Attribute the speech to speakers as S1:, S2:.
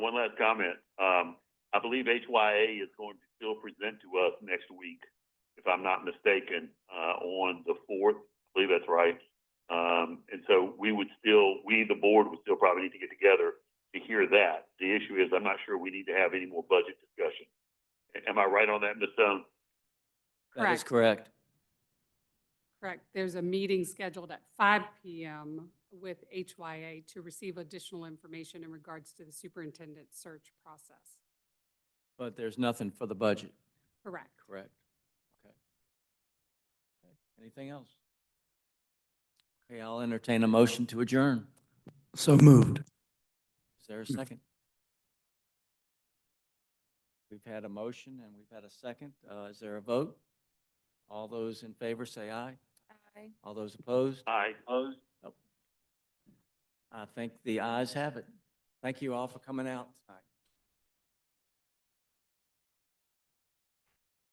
S1: one last comment. Um, I believe HYA is going to still present to us next week, if I'm not mistaken, uh, on the fourth. I believe that's right. Um, and so we would still, we, the board, would still probably need to get together to hear that. The issue is, I'm not sure we need to have any more budget discussion. A- Am I right on that, Ms. Stone?
S2: That is
S3: Correct.
S2: correct.
S3: Correct. There's a meeting scheduled at five PM with HYA to receive additional information in regards to the superintendent search process.
S2: But there's nothing for the budget.
S3: Correct.
S2: Correct. Okay. Okay. Anything else? Okay, I'll entertain a motion to adjourn.
S4: So moved.
S2: Is there a second? We've had a motion and we've had a second. Uh, is there a vote? All those in favor say aye. Aye. All those opposed?
S1: Aye. Opposed?
S2: I think the ayes have it. Thank you all for coming out tonight.